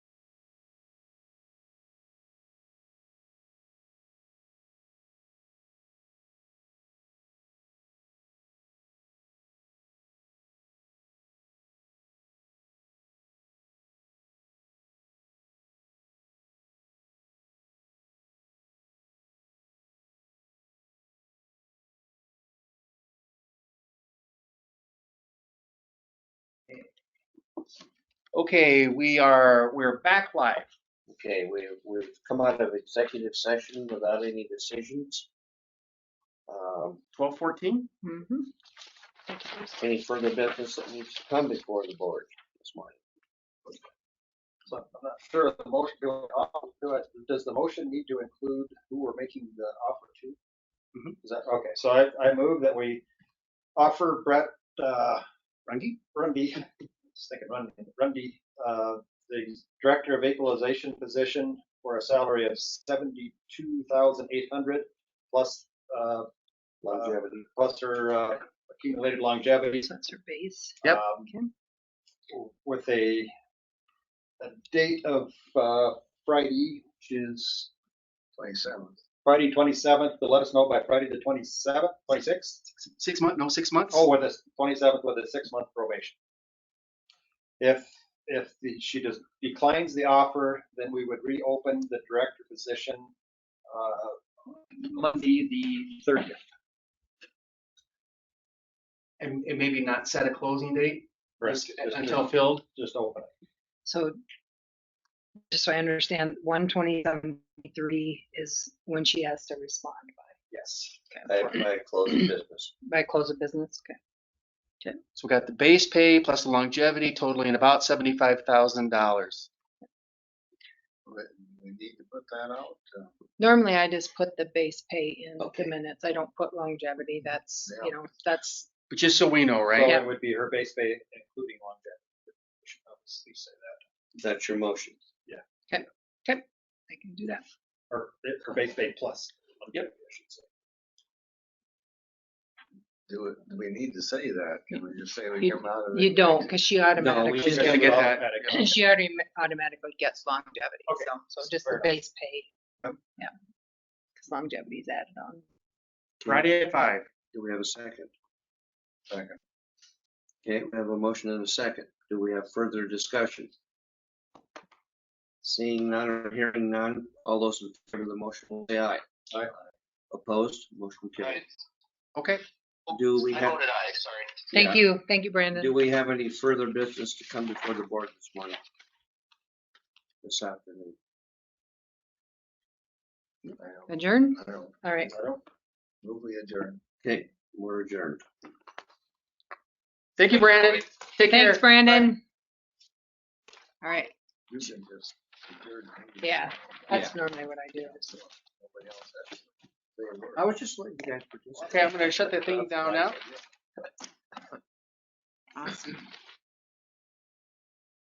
Okay, we are, we're back live. Okay, we, we've come out of executive session without any decisions. Um, Twelve fourteen? Any further business that needs to come before the board this morning? So I'm not sure of the motion, do I- I'll do it. does the motion need to include who we're making the offer to? Is that, okay, Mm-hmm. so I, I move that we offer Brett, uh, Rungy? Rundy, just thinking Rundy, Rundy, uh, the Director of Equalization position for a salary of seventy-two thousand eight hundred plus, uh, Longevity, plus her uh, accumulated longevity. So that's your base. Yep. um, Okay. With a, a date of uh, Friday, which is Twenty-seventh. Friday twenty-seventh, to let us know by Friday the twenty-seventh, twenty-sixth? Six month, no, six months? Oh, with a twenty-seventh with a six-month probation. If, if the- she does, declines the offer, then we would reopen the director position, uh, Monday, the thirtieth. And, and maybe not set a closing date Just just until filled? just open. it. So just so I understand, one twenty-seven three is when she has to respond Yes. I, I close the business. by, by close of business. Okay. So we got the base pay plus the longevity totaling about seventy-five thousand dollars. We we need to put that out. uh, Normally I just put the base pay in Okay. the minutes. I don't put longevity. That's, you know, that's, But just so we know, So right? it would be her base pay including longevity. We should obviously say that, That's your motion. I can do that. or it- her base pay plus. Yep. Do it, do we need to say that? Can we just say we You- come out of? You don't, because she we automatically, just gotta get that. she already automatically gets longevity. Okay. So, so just Fair the enough. base pay. Yep. Yeah. Because longevity is added on. Friday at five. Do we have a second? Second. Okay, we have a motion and a second. Do we have further discussion? Seeing none or hearing none, all those in favor of the motion will say aye. Aye. Opposed, motion carried. Okay, Do we have? Thank you. Thank you, Brandon. Do we have any further business to come before the board this morning? This afternoon? I Adjourn? don't- I don't, All right. I don't, move we adjourn. Okay, we're adjourned. thank you, Brandon. Take care. Thanks, Brandon. All right, You can just adjourn. maybe yeah, that's normally what I do. Nobody else has to say a word. I was just letting you guys participate. Okay, I'm gonna shut the thing down now. Awesome.